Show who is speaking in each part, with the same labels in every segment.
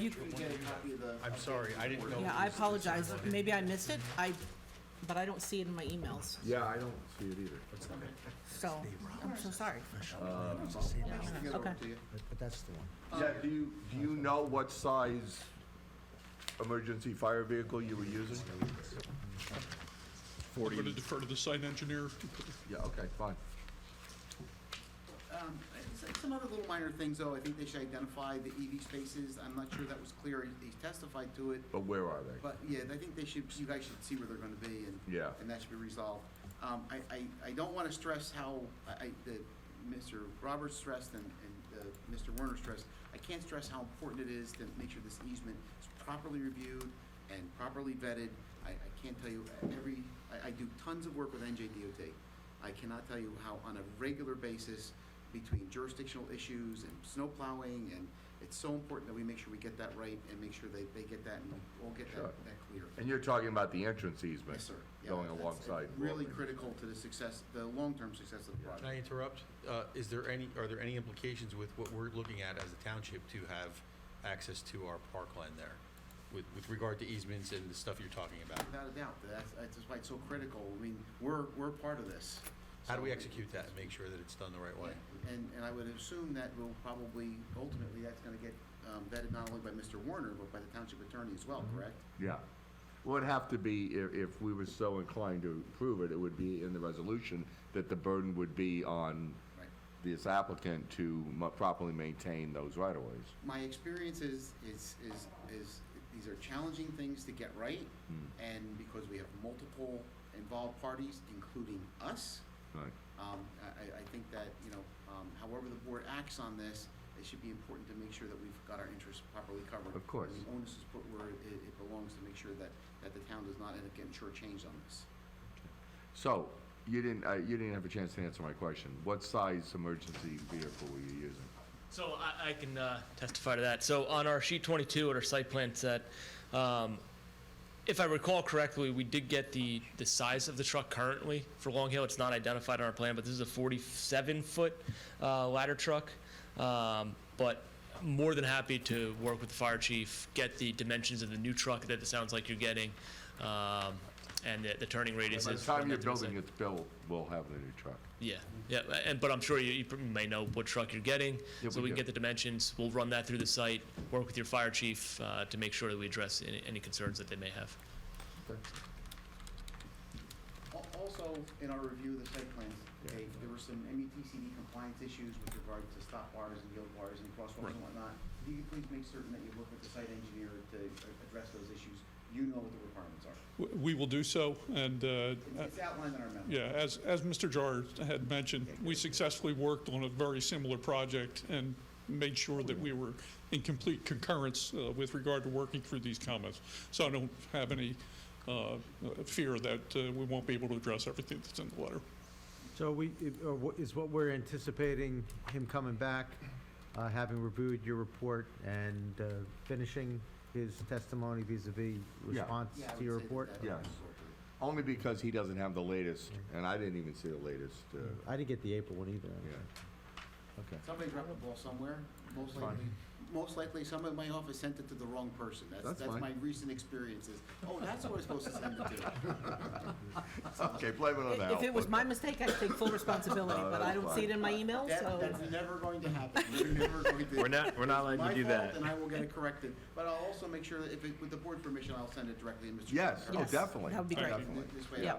Speaker 1: you could get a copy of the.
Speaker 2: I'm sorry, I didn't know.
Speaker 1: Yeah,
Speaker 2: it
Speaker 1: Yeah, I
Speaker 2: was this
Speaker 1: apologize,
Speaker 2: one.
Speaker 1: maybe I missed it, I, but I don't see it in my emails,
Speaker 3: Yeah, I don't see it either.
Speaker 1: so, I'm so sorry.
Speaker 2: I'll get over
Speaker 1: Okay.
Speaker 2: to you.
Speaker 4: But that's the one.
Speaker 3: Yeah, do you, do you know what size emergency fire vehicle you were using?
Speaker 5: I'm going to defer to the site engineer.
Speaker 3: Yeah, okay, fine.
Speaker 2: Um, s- Some other little minor things, though, I think they should identify the EV spaces, I'm not sure that was clear, he he testified to it,
Speaker 3: But where are they?
Speaker 2: but yeah, I think they should, you guys should see where they're gonna be and.
Speaker 3: Yeah.
Speaker 2: And that should be resolved. Um, I, I, I don't wanna stress how, I, I, the, Mr. Roberts stressed and, and, uh, Mr. Werner stressed, I can't stress how important it is to make sure this easement is properly reviewed and properly vetted. I, I can't tell you every, I, I do tons of work with NJDOT. I cannot tell you how on a regular basis, between jurisdictional issues and snow plowing, and it's so important that we make sure we get that right and make sure they, they get that and we'll get that,
Speaker 3: Sure.
Speaker 2: that clear.
Speaker 3: And you're talking about the entrance easement?
Speaker 2: Yes, sir. Yeah,
Speaker 3: Going
Speaker 2: that's
Speaker 3: alongside.
Speaker 2: Really
Speaker 3: Walgreens.
Speaker 2: critical to the success, the long-term success of the
Speaker 6: Can I
Speaker 2: project.
Speaker 6: interrupt? Uh, Is there any, are there any implications with what we're looking at as a township to have access to our parkland there with, with regard to easements and the stuff you're talking about?
Speaker 2: Without a doubt, that's, that's why it's so critical. I mean, we're, we're part of this.
Speaker 6: How do we
Speaker 2: So-
Speaker 6: execute that and make sure that it's done the right way?
Speaker 2: And, and I would assume that will probably, ultimately, that's gonna get um, vetted not only by Mr. Warner, but by the township attorney as well, correct?
Speaker 3: Yeah. Would have to be, if, if we were so inclined to approve it, it would be in the resolution that the burden would be on
Speaker 2: Right.
Speaker 3: this applicant to mu- properly maintain those right-of-ways.
Speaker 2: my experience is, is, is, is these are challenging things to get right. And because we have multiple involved parties, including us,
Speaker 3: Right.
Speaker 2: um, I, I- I think that, you know, um, however the board acts on this, it should be important to make sure that we've got our interests properly covered.
Speaker 3: Of course.
Speaker 2: And the onus is put where it, it belongs to make sure that, that the town does not end up getting shortchanged on this.
Speaker 3: So, you didn't, uh, you didn't have a chance to answer my question. What size emergency vehicle were you using?
Speaker 7: So I, I can uh, testify to that. So on our sheet 22 at our site plan set, um, if I recall correctly, we did get the, the size of the truck currently for Long Hill. It's not identified on our plan, but this is a 47-foot uh, ladder truck. Um, But more than happy to work with the fire chief, get the dimensions of the new truck that it sounds like you're getting, um, and the, the turning radius.
Speaker 3: By the
Speaker 7: is
Speaker 3: time you're
Speaker 7: fundamentally the same.
Speaker 3: building its bill, we'll have the new truck.
Speaker 7: Yeah, yeah, and, but I'm sure you, you probably may know what truck you're getting,
Speaker 3: Yeah,
Speaker 7: so
Speaker 3: we
Speaker 7: we can
Speaker 3: do.
Speaker 7: get the dimensions, we'll run that through the site, work with your fire chief, uh, to make sure that we address any, any concerns that they may have.
Speaker 2: Al- Also, in our review of the site plans, Dave, there were some E METCD compliance issues with regard to stop bars and yield bars and crosswalks and whatnot. If you could please make certain that you work with the site engineer to a- address those issues, you know what the requirements are.
Speaker 5: W- We will do so, and, uh,
Speaker 2: It's- It's outlined in our memo.
Speaker 5: yeah, as, as Mr. Jar had mentioned, we successfully worked on a very similar project and made sure that we were in complete concurrence uh, with regard to working through these comments. So I don't have any uh, fear that uh, we won't be able to address everything that's in the letter.
Speaker 4: So we, if- uh, wha- is what we're anticipating him coming back, uh, having reviewed your report and uh, finishing his testimony vis-à-vis response
Speaker 2: Yeah, I
Speaker 4: to
Speaker 2: would
Speaker 4: your
Speaker 2: say that
Speaker 4: report?
Speaker 2: that-
Speaker 3: Yes. Only because he doesn't have the latest, and I didn't even see the latest, uh,
Speaker 4: I didn't get the April one either.
Speaker 3: yeah. Okay.
Speaker 2: Somebody dropped the ball somewhere, most
Speaker 3: Fine.
Speaker 2: likely, most likely someone in my office sent it to the wrong person. That's,
Speaker 3: That's
Speaker 2: that's
Speaker 3: fine.
Speaker 2: my recent experiences. Oh, that's what I was supposed to send it to.
Speaker 3: Okay, blame it on that.
Speaker 1: If it was my mistake, I'd take full responsibility,
Speaker 3: No,
Speaker 1: but I
Speaker 3: that's
Speaker 1: don't see it in my emails,
Speaker 2: That,
Speaker 1: so.
Speaker 2: that's never going to happen. We're never going to.
Speaker 8: We're not, we're not allowed to do
Speaker 2: My fault,
Speaker 8: that.
Speaker 2: and I will get it corrected. But I'll also make sure that if it, with the board permission, I'll send it directly to Mr.
Speaker 3: Yes, oh,
Speaker 2: Carpenter.
Speaker 1: Yes,
Speaker 3: definitely.
Speaker 1: that would be great.
Speaker 3: definitely.
Speaker 2: Th- This way,
Speaker 1: Yeah.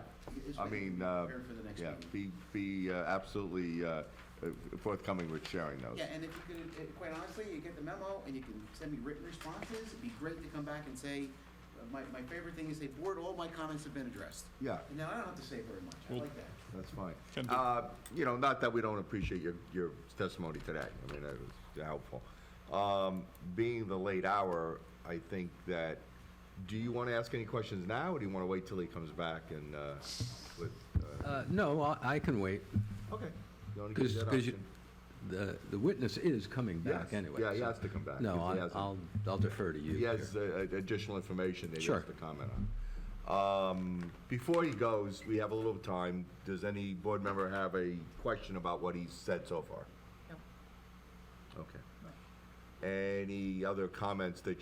Speaker 2: this
Speaker 3: I
Speaker 2: way
Speaker 3: mean,
Speaker 2: we're
Speaker 3: uh,
Speaker 2: prepared for the next
Speaker 3: yeah,
Speaker 2: meeting.
Speaker 3: be, be uh, absolutely uh, uh, forthcoming with sharing those.
Speaker 2: Yeah, and if you could, uh, quite honestly, you get the memo and you can send me written responses, it'd be great to come back and say, uh, my, my favorite thing is say, board, all my comments have been addressed.
Speaker 3: Yeah,
Speaker 2: And now I don't have to say very much. I
Speaker 5: Well,
Speaker 2: like that.
Speaker 3: that's fine.
Speaker 5: Can do.
Speaker 3: Uh, You know, not that we don't appreciate your, your testimony today, I mean, that was helpful. Um, Being the late hour, I think that, do you want to ask any questions now, or do you want to wait till he comes back and, uh, with? uh,
Speaker 9: Uh, No, I- I can wait,
Speaker 3: Okay. You wanna give
Speaker 9: because,
Speaker 3: that option?
Speaker 9: the, the witness is coming back
Speaker 3: Yes.
Speaker 9: anyway.
Speaker 3: Yeah, he
Speaker 9: so-
Speaker 3: has to come back.
Speaker 9: No,
Speaker 3: If he
Speaker 9: I-
Speaker 3: hasn't-
Speaker 9: I'll, I'll defer to you.
Speaker 3: He has
Speaker 9: here.
Speaker 3: uh, additional information that he
Speaker 9: Sure.
Speaker 3: has to comment on. Um, Before he goes, we have a little time. Does any board member have a question about what he's said so far? No. Okay. Any other comments that